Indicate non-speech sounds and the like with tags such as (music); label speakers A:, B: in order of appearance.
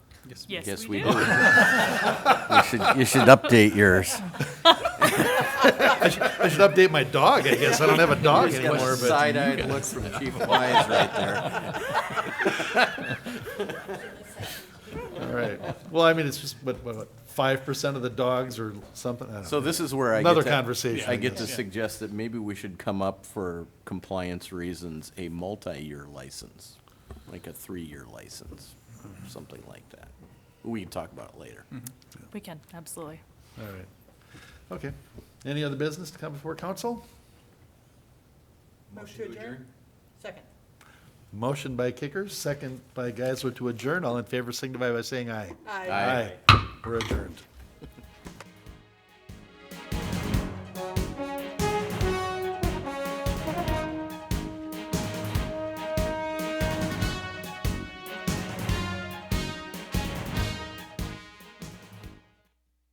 A: Yes,
B: Yes,
A: we
B: we
A: do.
B: do.
C: (laughs) You should, you should update yours.
D: I should update my dog, I guess. I don't have a (laughs) dog
C: Just got
D: anymore,
C: a
D: but
C: side-eyed look from Chief Wise right there.
D: all right. Well, I mean, it's just what what five percent of the dogs or something. I don't
C: So
D: know.
C: this is where I. get
D: Another
C: to-
D: conversation, I
C: I get
D: guess.
C: to suggest that maybe we should come up for compliance reasons, a multi-year license, like a three-year license, something like that. We can talk about it later.
A: We can, absolutely.
D: all right. Okay. Any other business to come before council?
E: Motion to adjourn? Second.
D: Motion by Kickers, second by Geisler to adjourn. All in favor signify by saying aye.
C: Aye.
D: We're adjourned.